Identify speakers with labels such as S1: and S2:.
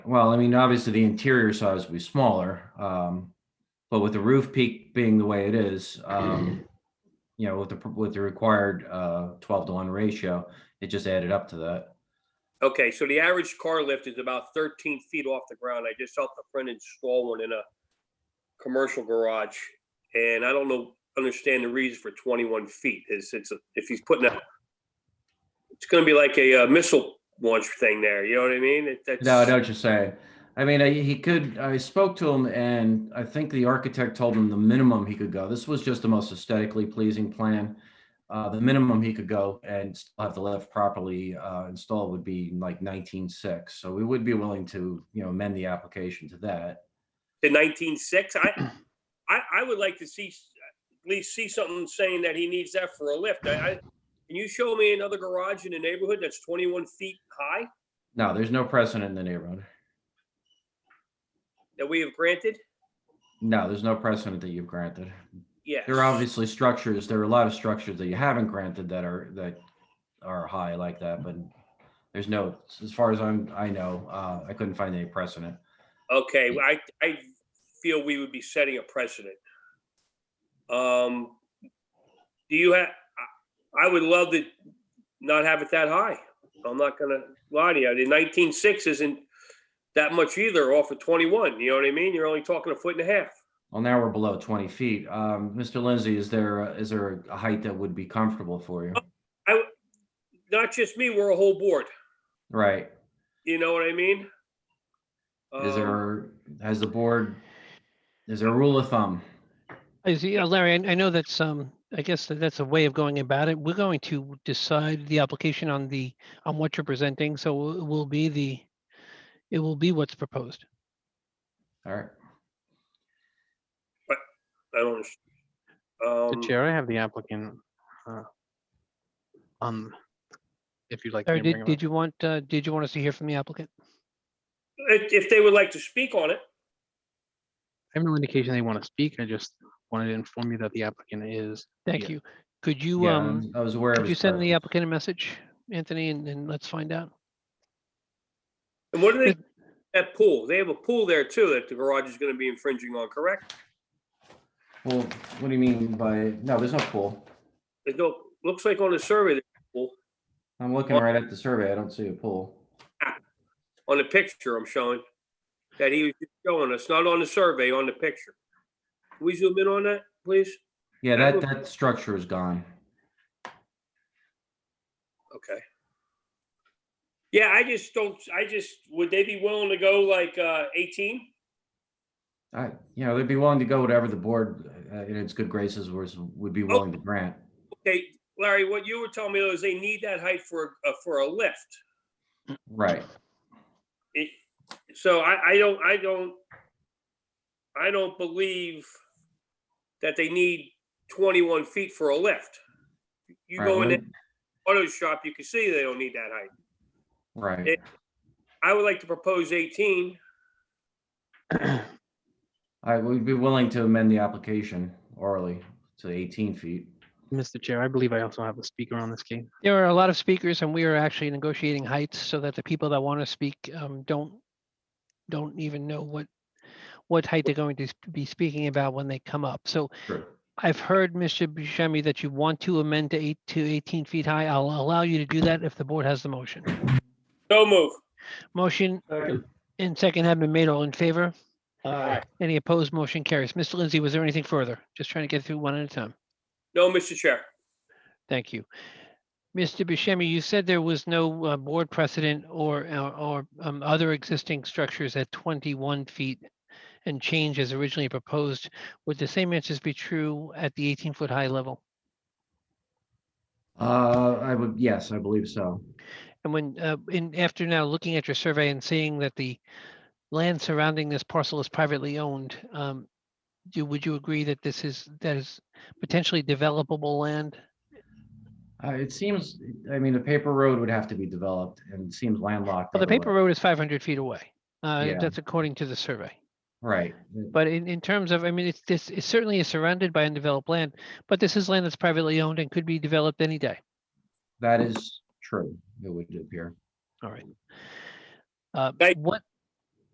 S1: well, I mean, obviously the interior size will be smaller. Um, but with the roof peak being the way it is, um, you know, with the, with the required, uh, twelve to one ratio, it just added up to that.
S2: Okay, so the average car lift is about thirteen feet off the ground. I just helped a friend install one in a commercial garage. And I don't know, understand the reason for twenty-one feet is it's, a- if he's putting a, it's gonna be like a uh, missile launch thing there, you know what I mean? It- that's-
S1: No, I know what you're saying. I mean, I- he could, I spoke to him and I think the architect told him the minimum he could go. This was just the most aesthetically pleasing plan. Uh, the minimum he could go and still have the lift properly, uh, installed would be like nineteen-six. So we would be willing to, you know, amend the application to that.
S2: to nineteen six. I, I, I would like to see, at least see something saying that he needs that for a lift. I, I, can you show me another garage in the neighborhood that's twenty-one feet high
S1: No, there's no precedent in the neighborhood.
S2: that we have granted?
S1: No, there's no precedent that you've granted.
S2: Yes.
S1: There are obviously structures, there are a lot of structures that you haven't granted that are, that are high like that, but there's no, as far as I'm, I know, uh, I couldn't find any precedent.
S2: Okay, I, I feel we would be setting a precedent. Um, do you have, I would love to not have it that high. I'm not gonna lie to you. The nineteen six isn't that much either off of twenty-one, you know what I mean? You're only talking a foot and a half.
S1: Well, now we're below twenty feet. Um, Mr. Lindsay, is there, a- is there a height that would be comfortable for you?
S2: not just me, we're a whole board.
S1: Right,
S2: You know what I mean?
S1: is
S2: Um,
S1: there, has the board, is there a rule of thumb?
S3: Is, yeah, Larry, I, I know that's, um, I guess that that's a way of going about it. We're going to decide the application on the, on what you're presenting, so it will be the, it will be what's proposed.
S1: All right,
S2: I don't.
S4: The
S2: Um,
S4: chair, I have the applicant. uh, Um, if you'd like. me
S3: Larry,
S4: to bring
S3: did,
S4: him up.
S3: did you want, uh, did you want us to hear from the applicant?
S2: if, if they would like to speak on it,
S4: I have no indication they want to speak. I just wanted to inform you that the applicant is.
S3: Thank
S4: Yeah.
S3: you. Could you,
S1: yeah, I
S3: um,
S1: was- I was aware of
S3: could you
S1: his
S3: send the
S1: presence.
S3: applicant a message, Anthony, and then let's find out?
S2: and what do they,
S3: It-
S2: that pool, they have a pool there too that the garage is gonna be infringing on, correct?
S1: Well, what do you mean by, no, there's no pool.
S2: There's no, looks like on the survey, there's a pool.
S1: I'm looking right at the survey, I don't see a pool.
S2: on the picture I'm showing, that he was just showing us, not on the survey, on the picture. Can we zoom in on that, please?
S1: Yeah,
S2: That
S1: that,
S2: would-
S1: that structure is gone.
S2: Okay. Yeah, I just don't, I just, would they be willing to go like, uh, eighteen?
S1: I, you know, they'd be willing to go whatever the board, uh, in its good graces was, would be willing to grant.
S2: Okay, Larry, what you were telling me is they need that height for, a- uh, for a lift.
S1: Right.
S2: It, so I, I don't, I don't, I don't believe that they need twenty-one feet for a lift. You
S1: Right,
S2: go in
S1: what-
S2: the auto shop, you can see they don't need that height.
S1: Right.
S2: it- I would like to propose eighteen.
S1: I would be willing to amend the application orally to eighteen feet.
S4: Mr. Chair, I believe I also have a speaker on this case.
S3: There are a lot of speakers and we are actually negotiating heights so that the people that want to speak um, don't, don't even know what, what height they're going to s- be speaking about when they come up. So
S1: Sure.
S3: I've heard, Mr. Buscemi, that you want to amend to eight, to 18 feet high. I'll allow you to do that if the board has the motion.
S2: So move.
S3: Motion and second have been made. All in favor?
S2: Aye.
S3: Any opposed? Motion carries. Mr. Lindsay, was there anything further? Just trying to get through one at a time.
S2: No, Mr. Chair.
S3: Thank you. Mr. Buscemi, you said there was no uh, board precedent or, or- or um, other existing structures at 21 feet and change as originally proposed. Would the same answers be true at the 18-foot high level?
S1: Uh, I would, yes, I believe so.
S3: And when, uh, in, after now looking at your survey and seeing that the land surrounding this parcel is privately owned, um, do, would you agree that this is, that is potentially developable land?
S1: Uh, it seems, I mean, the paper road would have to be developed and it seems landlocked.
S3: Well, the paper
S1: otherwise.
S3: road is five hundred feet away. Uh,
S1: Yeah.
S3: that's according to the survey.
S1: Right.
S3: But in, in terms of, I mean, it's, this, it certainly is surrounded by undeveloped land, but this is land that's privately owned and could be developed any day.
S1: That is true. It would appear.
S3: All right. Uh,
S2: Thank-
S3: what,